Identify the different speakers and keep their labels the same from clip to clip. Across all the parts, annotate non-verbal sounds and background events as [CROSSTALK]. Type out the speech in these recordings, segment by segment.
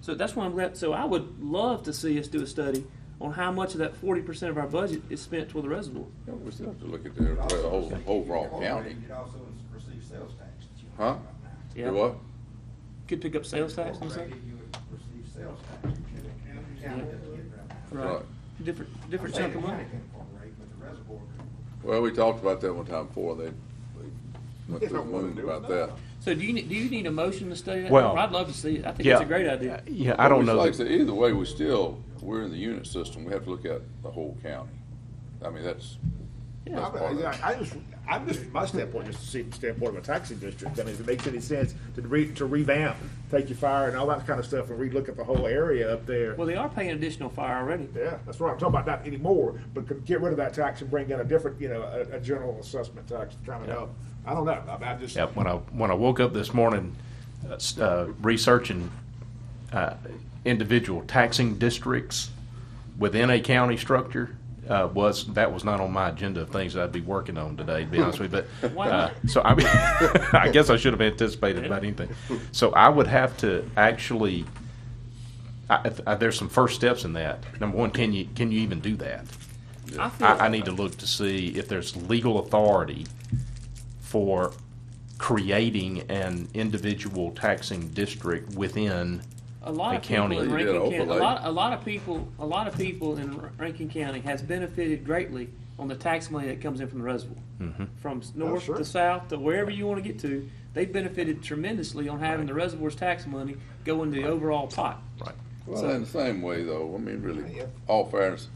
Speaker 1: So that's why I'm glad. So I would love to see us do a study on how much of that 40% of our budget is spent toward the reservoir.
Speaker 2: Yeah, we still have to look at the, the whole, overall county,
Speaker 3: You'd also receive sales tax. that you don't
Speaker 2: huh?
Speaker 3: right now.
Speaker 1: Yeah.
Speaker 2: Do what?
Speaker 1: Could pick up sales tax and stuff.
Speaker 3: Already You would receive sales tax, which you the county doesn't get right now.
Speaker 1: Right.
Speaker 2: Right.
Speaker 1: Different,
Speaker 3: I'm
Speaker 1: different
Speaker 3: saying
Speaker 1: chunk of
Speaker 3: the
Speaker 1: money.
Speaker 3: county can incorporate, but the reservoir can.
Speaker 2: Well, we talked about that one time before, they, they
Speaker 1: [LAUGHS]
Speaker 2: went through the moon about that.
Speaker 1: So do you, need- do you need a motion to study that?
Speaker 4: Well-
Speaker 1: I'd love to see it. I think
Speaker 4: yeah, Uh,
Speaker 1: it's a great idea.
Speaker 4: Yeah, I don't
Speaker 2: But
Speaker 4: know.
Speaker 2: Like I
Speaker 4: that-
Speaker 2: said, either way, we still, we're in the unit system, we have to look at the whole county. I mean, that's, that's
Speaker 1: Yeah.
Speaker 2: part of it.
Speaker 5: I I just, I'm just, from my standpoint, just to see the standpoint of a taxing district, I mean, if it makes any sense to re, to revamp, take your fire and all that kind of stuff and relook at the whole area up there.
Speaker 1: Well, they are paying additional fire already.
Speaker 5: Yeah, that's what I'm talking about, not anymore, but could get rid of that tax and bring in a different, you know, a, a general assessment tax kind of help. I don't know, I mean, I just.
Speaker 4: Yeah, when I when I woke up this morning, uh, s- uh, researching uh, individual taxing districts within a county structure uh, was that was not on my agenda of things that I'd be working on today. To be honest with you,
Speaker 1: [LAUGHS]
Speaker 4: but
Speaker 1: Why
Speaker 4: uh,
Speaker 1: not?
Speaker 4: so I [LAUGHS] mean, I guess I should have anticipated about anything. So I would have to actually. I, I, there's some first steps in that. Number one, can you can you even do that?
Speaker 1: I feel,
Speaker 4: I, I need to look to see if there's legal authority for creating an individual taxing district within,
Speaker 1: a lot
Speaker 4: the
Speaker 1: of people
Speaker 4: county.
Speaker 1: in
Speaker 4: You
Speaker 2: did
Speaker 1: Rankin County, a
Speaker 2: overlay.
Speaker 1: lot, a lot of people, a lot of people in Ra- Rankin County has benefited greatly on the tax money that comes in from the reservoir.
Speaker 4: Mm-hmm.
Speaker 1: From s- north
Speaker 5: sure.
Speaker 1: to south to wherever you want to get to, they've benefited tremendously on having the reservoir's tax money go in the overall pot.
Speaker 4: right?
Speaker 2: Well, in the same way though, I mean, really, all fairness,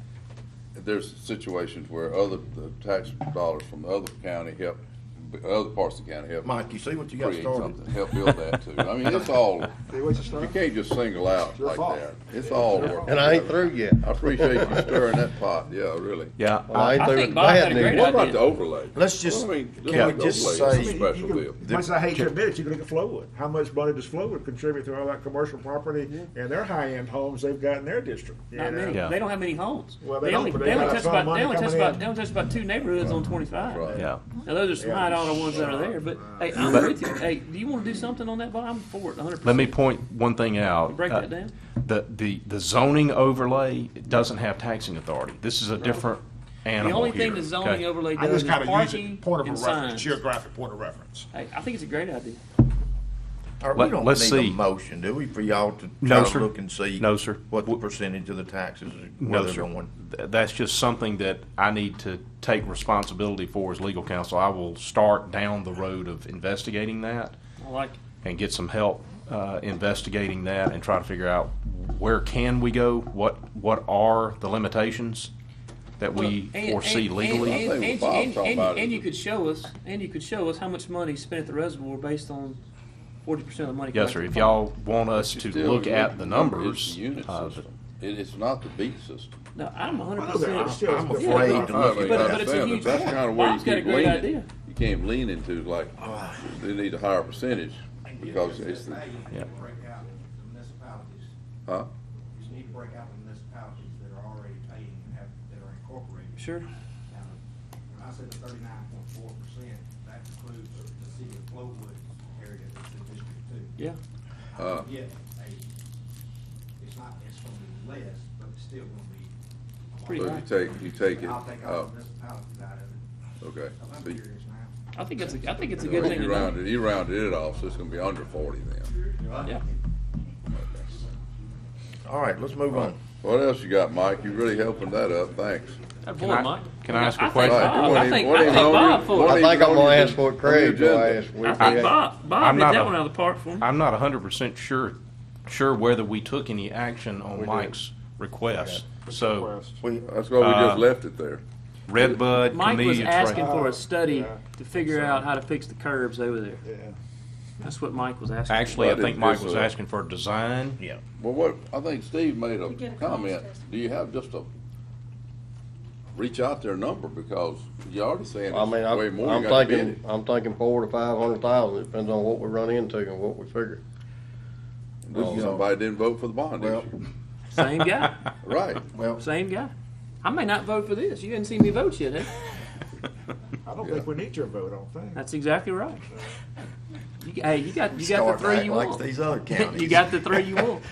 Speaker 2: there's situations where other, the tax dollars from the other county help, other parts of the county help.
Speaker 6: Mike, you see what you got
Speaker 2: create
Speaker 6: started?
Speaker 2: something, help build that too. I mean, it's all,
Speaker 4: [LAUGHS]
Speaker 5: See what you
Speaker 2: you
Speaker 5: started?
Speaker 2: can't just single out
Speaker 5: your
Speaker 2: like
Speaker 5: fault.
Speaker 2: that. It's all working.
Speaker 6: And I ain't through yet.
Speaker 2: I appreciate you stirring that pot, yeah, really.
Speaker 4: Yeah,
Speaker 6: Well, I ain't
Speaker 1: I
Speaker 6: through
Speaker 1: think
Speaker 6: with the
Speaker 1: Bob had
Speaker 6: bad
Speaker 1: a great
Speaker 6: news.
Speaker 2: What
Speaker 1: idea.
Speaker 2: about the overlay?
Speaker 6: Let's just-
Speaker 2: Well, I mean,
Speaker 6: can
Speaker 2: look
Speaker 6: we
Speaker 2: at the
Speaker 6: just
Speaker 2: overlay. It's a
Speaker 6: say-
Speaker 2: Special deal.
Speaker 5: Much as I hate to admit it, you can look at Flowood, how much money does Flowood contribute to all that commercial property and their high-end homes they've got in their district? you
Speaker 1: Not
Speaker 5: know?
Speaker 1: many.
Speaker 4: Yeah.
Speaker 1: They don't have many homes.
Speaker 5: Well, they don't,
Speaker 1: only,
Speaker 5: but they
Speaker 1: they only
Speaker 5: got
Speaker 1: touch
Speaker 5: some
Speaker 1: about,
Speaker 5: money
Speaker 1: they only touch
Speaker 5: coming
Speaker 1: about,
Speaker 5: in.
Speaker 1: they only touch about two neighborhoods on twenty-five.
Speaker 2: Right.
Speaker 4: yeah.
Speaker 1: Now, those are some high dollar ones that are there, but, hey, I'm with you. Hey, do you wanna do something on that, Bob? I'm for it, hundred percent.
Speaker 4: Let me point one thing out.
Speaker 1: Break
Speaker 4: Uh,
Speaker 1: that down.
Speaker 4: The, the, the zoning overlay doesn't have taxing authority. This is a different
Speaker 1: The
Speaker 4: animal
Speaker 1: only
Speaker 4: here.
Speaker 1: thing the zoning
Speaker 4: okay?
Speaker 1: overlay
Speaker 5: I
Speaker 1: does
Speaker 5: just
Speaker 1: is
Speaker 5: gotta use it,
Speaker 1: parking
Speaker 5: point
Speaker 1: and
Speaker 5: of a reference,
Speaker 1: signs.
Speaker 5: geographic point of reference.
Speaker 1: Hey, I think it's a great idea.
Speaker 6: All right,
Speaker 4: Let-
Speaker 6: we don't
Speaker 4: let's
Speaker 6: need
Speaker 4: see.
Speaker 6: a motion, do we, for y'all to
Speaker 4: No,
Speaker 6: try to
Speaker 4: sir.
Speaker 6: look and see?
Speaker 4: No, sir.
Speaker 6: What the percentage of the taxes, are-
Speaker 4: No,
Speaker 6: where they're
Speaker 4: sir.
Speaker 6: going?
Speaker 4: Th- That's just something that I need to take responsibility for as legal counsel. I will start down the road of investigating that.
Speaker 1: I like it.
Speaker 4: and get some help uh, investigating that and try to figure out where can we go, what what are the limitations that we
Speaker 1: Well, and-
Speaker 4: foresee
Speaker 1: and-
Speaker 4: legally.
Speaker 1: And, and,
Speaker 2: I
Speaker 1: and,
Speaker 2: think what Bob's
Speaker 1: and-
Speaker 2: talking
Speaker 1: and-
Speaker 2: about is-
Speaker 1: and you could show us, and you could show us how much money is spent at the reservoir based on forty percent of the money. collected
Speaker 4: yes, sir.
Speaker 1: from
Speaker 4: If
Speaker 1: the
Speaker 4: y'all want us
Speaker 2: But
Speaker 4: to
Speaker 2: you still-
Speaker 4: look at the
Speaker 2: It's
Speaker 4: numbers,
Speaker 2: the unit
Speaker 4: uh,
Speaker 2: system. It, it's not the beat system.
Speaker 1: farm. No, I'm hundred
Speaker 5: I know that. I'm
Speaker 1: percent.
Speaker 5: still-
Speaker 6: I'm
Speaker 5: Yeah,
Speaker 6: afraid to look
Speaker 2: I mean,
Speaker 6: at
Speaker 1: But-
Speaker 2: I'm
Speaker 1: but
Speaker 6: that.
Speaker 1: it's a
Speaker 2: saying that
Speaker 1: huge
Speaker 2: That's
Speaker 1: point.
Speaker 2: kind of where you
Speaker 1: Bob's got a
Speaker 2: keep
Speaker 1: great
Speaker 2: leaning,
Speaker 1: idea.
Speaker 2: you can't lean into like, they need a higher percentage because it's the,
Speaker 3: Hey, you need
Speaker 4: Yeah.
Speaker 3: to break out the municipalities,
Speaker 2: huh?
Speaker 3: you just need to break out the municipalities that are already paying and have, that are incorporated.
Speaker 1: Sure.
Speaker 3: Now, When I said the thirty-nine point four percent, that includes the city of Flowood area that's in District Two.
Speaker 1: Yeah.
Speaker 2: Uh.
Speaker 3: Yeah, a, it's not, it's gonna be less, but it's still gonna be. a lot.
Speaker 1: Pretty
Speaker 2: So you take, you take it,
Speaker 3: I'll take
Speaker 2: uh,
Speaker 3: all the municipalities out of it.
Speaker 2: okay.
Speaker 3: I'm
Speaker 2: So you-
Speaker 3: curious now.
Speaker 1: I think it's a, I think it's a good thing to
Speaker 2: You
Speaker 1: know.
Speaker 2: rounded, you rounded it off, so it's gonna be under forty then.
Speaker 1: Yeah.
Speaker 6: All right, let's move on.
Speaker 2: What else you got, Mike? You really helping that up, thanks.
Speaker 1: That
Speaker 4: I-
Speaker 1: boy, Mike.
Speaker 4: can I ask a
Speaker 1: think
Speaker 4: question?
Speaker 1: Bob-
Speaker 2: Right, you
Speaker 1: Oh, I
Speaker 2: wanna-
Speaker 1: think,
Speaker 2: what
Speaker 1: I
Speaker 2: do you
Speaker 1: think
Speaker 2: know
Speaker 1: Bob
Speaker 2: you-
Speaker 1: for
Speaker 2: what
Speaker 1: it.
Speaker 2: do
Speaker 6: I think I'm gonna ask for it, Craig,
Speaker 2: Agenda.
Speaker 6: will ask.
Speaker 1: I
Speaker 6: We'll
Speaker 1: think
Speaker 6: ask.
Speaker 1: Bob, Bob
Speaker 4: I'm
Speaker 1: hit
Speaker 4: not
Speaker 1: that
Speaker 4: a-
Speaker 1: one out of the park for him.
Speaker 4: I'm not 100% sure sure whether we took any action on
Speaker 6: did.
Speaker 4: Mike's request. So,
Speaker 6: We-
Speaker 2: That's why we just
Speaker 4: Uh,
Speaker 2: left it there.
Speaker 4: Redbud,
Speaker 1: Mike was
Speaker 4: Camellia
Speaker 1: asking
Speaker 4: Trail.
Speaker 1: for a study
Speaker 5: Yeah.
Speaker 1: to figure out how to fix the curbs over there.
Speaker 5: Yeah.
Speaker 1: That's what Mike was asking.
Speaker 4: Actually, I
Speaker 2: What
Speaker 4: think
Speaker 2: is
Speaker 4: Mike
Speaker 2: this,
Speaker 4: was
Speaker 2: uh,
Speaker 4: asking for a design.
Speaker 6: Yeah.
Speaker 2: Well, what, I think Steve made a
Speaker 7: get a call
Speaker 2: comment.
Speaker 7: first.
Speaker 2: Do you have just a, reach out their number because you already saying
Speaker 6: I mean,
Speaker 2: it's way
Speaker 6: I'm,
Speaker 2: more. You
Speaker 6: I'm
Speaker 2: gotta bid
Speaker 6: thinking, I'm thinking four to five hundred thousand, It depends on what we run into and what we figure.
Speaker 2: it. This is Somebody didn't vote for the bond
Speaker 6: Oh, Well-
Speaker 2: issue.
Speaker 1: [LAUGHS] Same guy,
Speaker 6: [LAUGHS]
Speaker 2: Right.
Speaker 6: Well,
Speaker 1: same guy. I may not vote for this. You didn't see me vote yet, eh? huh?
Speaker 5: I don't think we need your vote on things.
Speaker 1: That's exactly right. You, hey, you got you got the
Speaker 6: start
Speaker 1: three
Speaker 6: acting
Speaker 1: you
Speaker 6: like
Speaker 1: want. [LAUGHS]
Speaker 6: these other counties. [LAUGHS]
Speaker 1: you got the three you want.